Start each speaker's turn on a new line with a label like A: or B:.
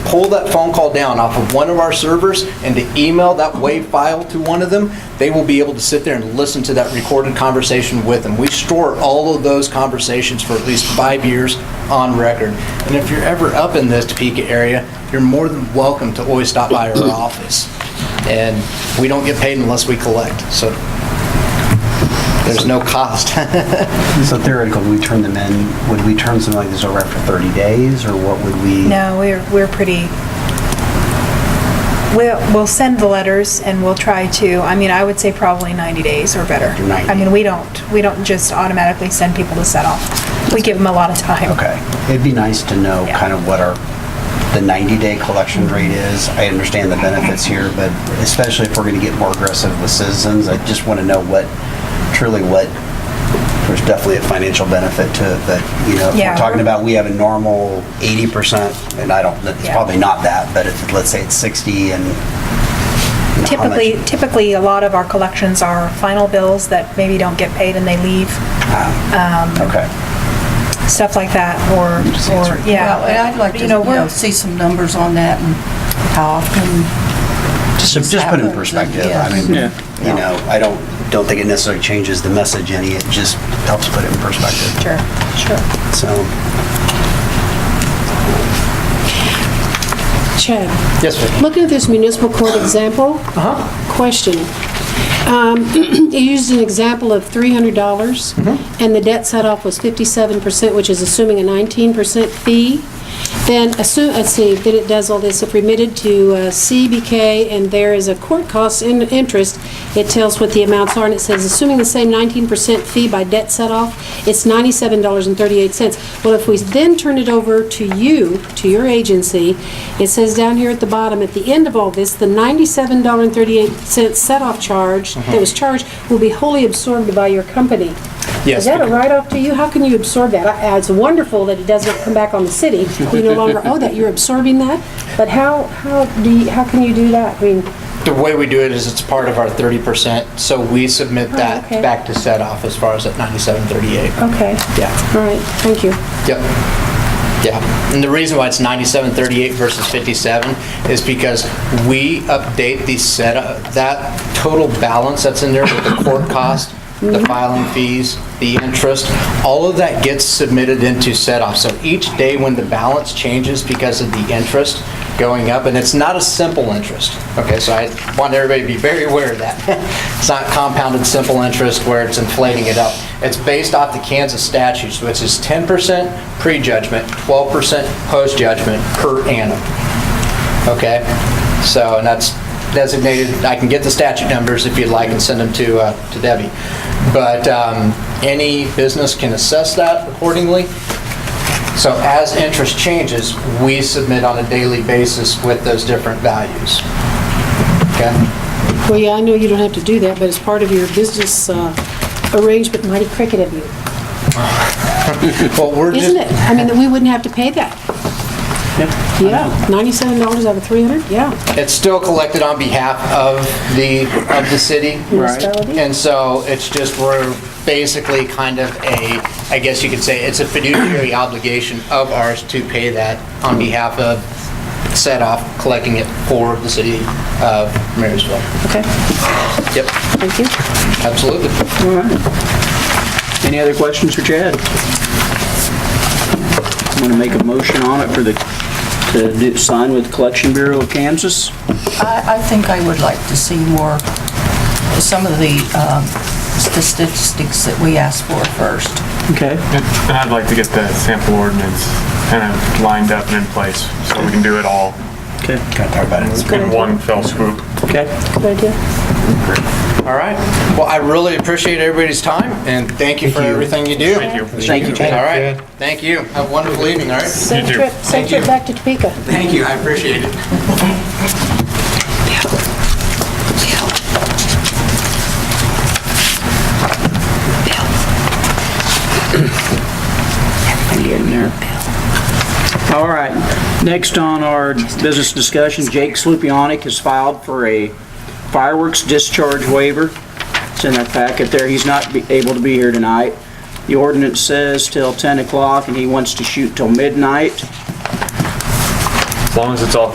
A: pull that phone call down off of one of our servers and to email that WAV file to one of them, they will be able to sit there and listen to that recorded conversation with them. We store all of those conversations for at least five years on record. And if you're ever up in this Topeka area, you're more than welcome to always stop by our office. And we don't get paid unless we collect, so there's no cost.
B: So theoretically, we turn them in, would we turn something like this over after 30 days, or what would we?
C: No, we're, we're pretty, we'll, we'll send the letters and we'll try to, I mean, I would say probably 90 days or better.
B: 90.
C: I mean, we don't, we don't just automatically send people to settle. We give them a lot of time.
B: Okay. It'd be nice to know
C: Yeah.
B: kind of what our, the 90-day collection rate is. I understand the benefits here, but especially if we're going to get more aggressive with citizens, I just want to know what, truly what, there's definitely a financial benefit to it, but, you know, if
C: Yeah.
B: we're talking about, we have a normal 80%, and I don't, it's
C: Yeah.
B: probably not that, but if, let's say it's 60 and. you know, how much-
C: Typically, typically, a lot of our collections are final bills that maybe don't get paid and they leave,
B: Okay.
C: stuff like that, or,
B: Just
C: or,
B: answer.
C: yeah.
D: Well, and I'd like to,
C: You
D: you
C: know, we're,
D: know, see some numbers on that and how often.
B: So just put it in perspective. I mean,
E: Yeah.
B: you know, I don't, don't think it necessarily changes the message any. It just helps put it in perspective.
C: sure, sure.
B: So,
F: Chad,
A: Yes, ma'am. Uh-huh.
F: looking at this municipal court example, question. Um, You used an example of
A: Mm-hmm.
F: $300, and the debt set-off was 57%, which is assuming a 19% fee. Then assume, let's see, then it does all this, if remitted to uh, CBK and there is a court cost in interest, it tells what the amounts are, and it says, assuming the same 19% fee by debt set-off, it's $97.38. Well, if we then turn it over to you, to your agency, it says down here at the bottom, at the end of all this, the $97.38 set-off charge
A: Uh-huh.
F: that was charged will be wholly absorbed by your company.
A: Yes,
F: Is that a
A: because-
F: write-off to you? How can you absorb that? I- It's wonderful that it doesn't come back on the city. We no longer owe that. You're absorbing that? But how, how do you, how can you do that? I mean,
A: The way we do it is it's part of our 30%, so we submit that
F: Oh, okay.
A: back to set off as far as at 9738.
F: okay,
A: Yeah.
F: all right, thank you.
A: Yep. Yeah. And the reason why it's 9738 versus 57 is because we update the set, that total balance that's in there with the court cost,
F: Mm-hmm.
A: the filing fees, the interest, all of that gets submitted into set off. So each day when the balance changes because of the interest going up, and it's not a simple interest, okay? So I want everybody to be very aware of that. It's not compounded simple interest where it's inflating it up. It's based off the Kansas statutes, which is 10% prejudgment, 12% post-judgment per annum. Okay, so, and that's designated, I can get the statute numbers if you'd like and send them to, uh, to Debbie. But um, any business can assess that accordingly. So as interest changes, we submit on a daily basis with those different values. Okay?
F: Well, yeah, I know you don't have to do that, but it's part of your business uh, arrangement, mighty cricket of you,
A: Well, we're just.
F: isn't it? I mean, that we wouldn't have to pay that. Yeah, $97 out of 300, yeah.
A: It's still collected on behalf of the, of the city.
F: Municipality.
A: And so it's just, we're basically kind of a, I guess you could say, it's a fiduciary obligation of ours to pay that on behalf of set off, collecting it for the city of Marysville.
F: Okay,
A: Yep,
F: thank you.
A: absolutely.
E: All right. Any other questions for Chad? I'm going to make a motion on it for the, to do- sign with Collection Bureau of Kansas.
D: I, I think I would like to see more, some of the um, statistics that we asked for first.
E: Okay.
G: And and I'd like to get the sample ordinance kind of lined up and in place so we can do it all
E: Okay.
B: kind of talk about it.
G: in one fell swoop.
E: Okay.
F: Good idea.
A: All right. Well, I really appreciate everybody's time, and thank you for everything you do.
G: Thank you.
E: Thank you, Chad.
A: All right, thank you. Have a wonderful evening, all right?
F: Safe
G: too.
F: trip, safe trip back to Topeka.
A: Thank you, I appreciate it.
E: All right. Next on our business discussion, Jake Slupionic has filed for a fireworks discharge waiver. It's in that packet there. He's not be- able to be here tonight. The ordinance says till 10 o'clock, and he wants to shoot till midnight.
H: long as it's all